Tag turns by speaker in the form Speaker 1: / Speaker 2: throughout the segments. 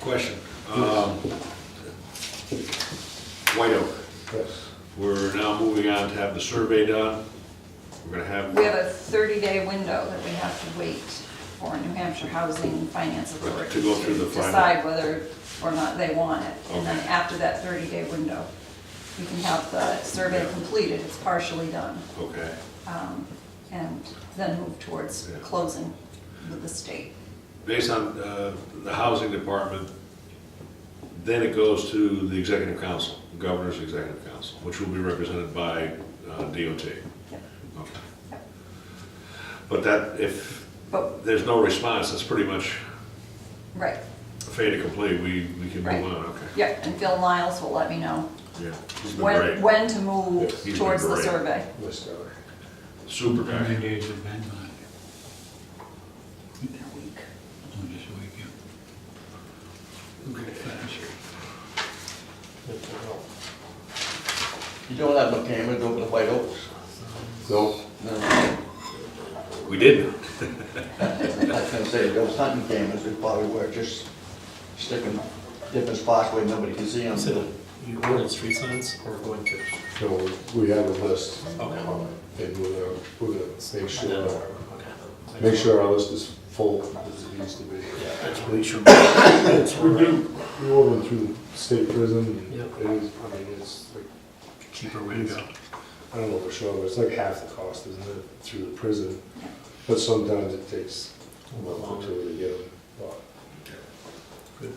Speaker 1: Question. Um, White Oak,
Speaker 2: Yes.
Speaker 1: we're now moving on to have the survey done. We're gonna have,
Speaker 3: We have a 30-day window that we have to wait for New Hampshire Housing Finance
Speaker 1: Right, to
Speaker 3: Authority.
Speaker 1: go through the
Speaker 3: to
Speaker 1: final.
Speaker 3: Decide whether or not they want it. And then
Speaker 1: Okay.
Speaker 3: after that 30-day window, you can have the survey
Speaker 1: Yeah.
Speaker 3: completed, it's partially done,
Speaker 1: okay,
Speaker 3: um, and then move towards
Speaker 1: Yeah.
Speaker 3: closing with the state.
Speaker 1: based on uh, the housing department, then it goes to the executive council, the governor's executive council, which will be represented by uh, DOT.
Speaker 3: Yep.
Speaker 1: Okay. But that, if
Speaker 3: But,
Speaker 1: there's no response, that's pretty much
Speaker 3: right,
Speaker 1: fait accompli, we, we can
Speaker 3: Right.
Speaker 1: move on, okay?
Speaker 3: yeah, and Phil Niles will let me know
Speaker 1: Yeah. He's been
Speaker 3: when,
Speaker 1: great,
Speaker 3: when to move
Speaker 1: Yes, he's been
Speaker 3: towards the
Speaker 1: great.
Speaker 3: survey.
Speaker 2: Yes, Tyler.
Speaker 1: super
Speaker 4: How many
Speaker 1: guy.
Speaker 4: days have been on
Speaker 3: In a week.
Speaker 4: Oh, just a week, yeah. Okay, fast.
Speaker 5: You don't have no cameras over the White Oaks?
Speaker 2: No,
Speaker 5: No. I
Speaker 1: We did.
Speaker 5: was gonna say, if those hunting cameras, they probably were just sticking different spots where nobody can see them.
Speaker 6: So you wanted street signs or going to?
Speaker 2: no, we have a list.
Speaker 6: Okay.
Speaker 2: And we're gonna, we're gonna make sure,
Speaker 6: Okay.
Speaker 2: make sure our list is full as it needs to be.
Speaker 6: Yeah, I just make sure. It's
Speaker 2: We do, we all went through state prison, and
Speaker 6: Yep.
Speaker 2: it is, I mean, it's like,
Speaker 6: Cheaper way to go.
Speaker 2: I don't know for sure, but it's like half the cost, isn't it, through the prison? But sometimes it takes a month or two to get them. But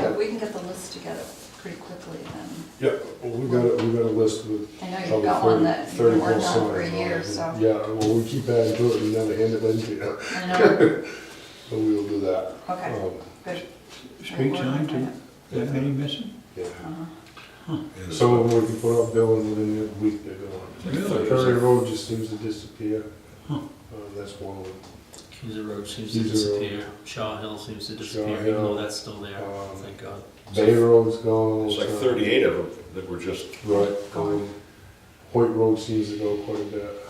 Speaker 3: But we can get the list together pretty quickly then.
Speaker 2: Yeah, well, we got, a- we got a list with
Speaker 3: I know you've
Speaker 2: probably
Speaker 3: got one
Speaker 2: thirty,
Speaker 3: that you've been
Speaker 2: thirty full
Speaker 3: working on for a
Speaker 2: signs.
Speaker 3: year,
Speaker 2: on
Speaker 3: so.
Speaker 2: it. Yeah, well, we keep adding to it, we never hand it in to you,
Speaker 3: I know,
Speaker 2: but we will do that.
Speaker 3: okay,
Speaker 2: Um,
Speaker 3: good.
Speaker 4: Street sign, too? That many missing?
Speaker 2: Yeah.
Speaker 3: Uh-huh.
Speaker 2: Some of them we can put up, Bill, and within a week they're gone.
Speaker 4: Really?
Speaker 2: Curry Road just seems to disappear.
Speaker 4: Huh.
Speaker 2: Uh, That's one of them.
Speaker 6: Keyser Road seems to
Speaker 2: Keyser Road.
Speaker 6: disappear. Shaw Hill seems to
Speaker 2: Shaw
Speaker 6: disappear, even
Speaker 2: Hill,
Speaker 6: though that's still there,
Speaker 2: um,
Speaker 6: thank God.
Speaker 2: Bay Road's gone.
Speaker 1: It's like
Speaker 2: uh,
Speaker 1: thirty-eight of them that were just
Speaker 2: Right, um, Hoyt Road seems to go quite a bit.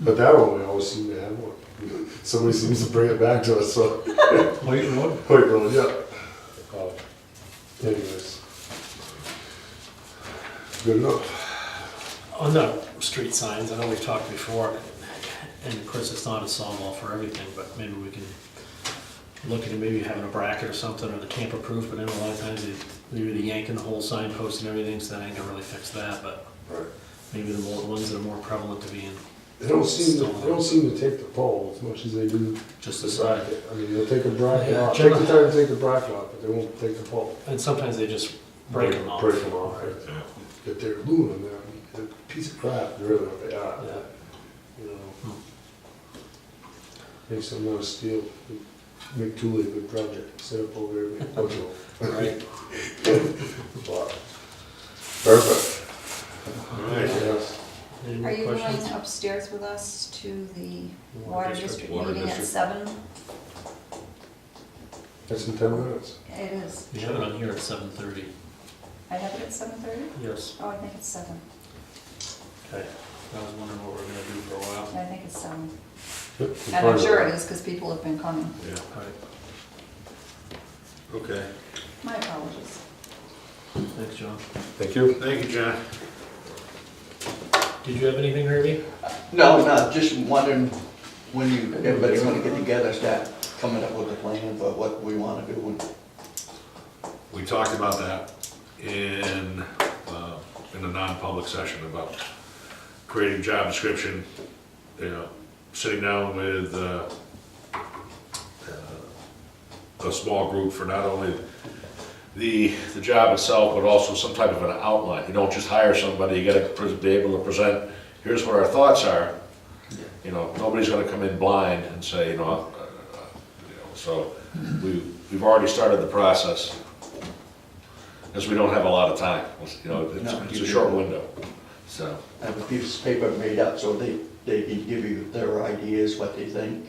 Speaker 2: But that one, we always seem to have one. Somebody seems to bring it back to us, so.
Speaker 4: White Road?
Speaker 2: Hoyt Road, yeah. Uh, Anyways. Good enough.
Speaker 6: On the street signs, I know we've talked before, and of course, it's not a sawmill for everything, but maybe we can look into maybe having a bracket or something, or the tamper-proof, but then a lot of times they, they're yanking the whole signpost and everything, so that ain't gonna really fix that, but
Speaker 2: Right.
Speaker 6: maybe the more, ones that are more prevalent to being
Speaker 2: They don't seem, to- they don't seem to take the pole as much as they do
Speaker 6: just
Speaker 2: the
Speaker 6: the
Speaker 2: side.
Speaker 6: sign.
Speaker 2: I mean, they'll take a bracket
Speaker 6: Yeah,
Speaker 2: off, take the
Speaker 6: generally-
Speaker 2: time to take the bracket off, but they won't take the pole.
Speaker 6: And sometimes they just break them off.
Speaker 2: Break them off, right. If they're aluminum, they're they're a piece of crap, they're really, what they are.
Speaker 6: Yeah. Hmm.
Speaker 2: you know. Make some out of steel, make Thule a good project, set up over there, make Ojo.
Speaker 6: Right.
Speaker 2: Perfect.
Speaker 1: All right.
Speaker 2: Yes.
Speaker 6: Any
Speaker 3: Are
Speaker 6: more
Speaker 3: you
Speaker 6: questions?
Speaker 3: going upstairs with us to the
Speaker 6: Water
Speaker 3: water
Speaker 6: district,
Speaker 3: district
Speaker 1: water
Speaker 3: meeting at
Speaker 1: district.
Speaker 3: seven?
Speaker 2: That's in ten minutes.
Speaker 3: It is.
Speaker 6: We have it on here at seven thirty.
Speaker 3: I have it at seven thirty?
Speaker 6: Yes.
Speaker 3: Oh, I think it's seven.
Speaker 6: Okay. I was wondering what we're gonna do for a while.
Speaker 3: I think it's seven.
Speaker 2: Yep.
Speaker 3: And I'm sure it is because people have been coming.
Speaker 1: Yeah,
Speaker 6: All right,
Speaker 1: okay.
Speaker 3: My apologies.
Speaker 6: thanks, John.
Speaker 2: Thank you.
Speaker 1: Thank you, John.
Speaker 6: Did you have anything, Herbie?
Speaker 5: No, no, just wondering when you, everybody's gonna get together, start coming up with a plan for what we wanna do and
Speaker 1: We talked about that in, uh, in a non-public session about creating job description, you know, sitting down with, uh, uh, a small group for not only the, the job itself, but also some type of an outline. You don't just hire somebody, you gotta pres- be able to present, here's what our thoughts are. You know, nobody's gonna come in blind and say, you know, uh, uh, you know, so we, we've already started the process. Because we don't have a lot of time, you know, it's,
Speaker 5: No.
Speaker 1: it's a short window, so.
Speaker 5: have a piece of paper made up so they, they can give you their ideas, what they think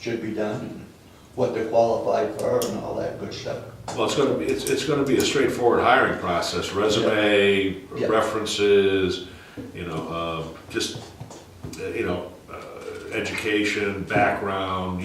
Speaker 5: should be done, and what they're qualified for and all that good stuff.
Speaker 1: Well, it's gonna be, it's, it's gonna be a straightforward hiring process, resume,
Speaker 5: Yeah.
Speaker 1: references, you know, um, just, uh, you know, uh, education, background,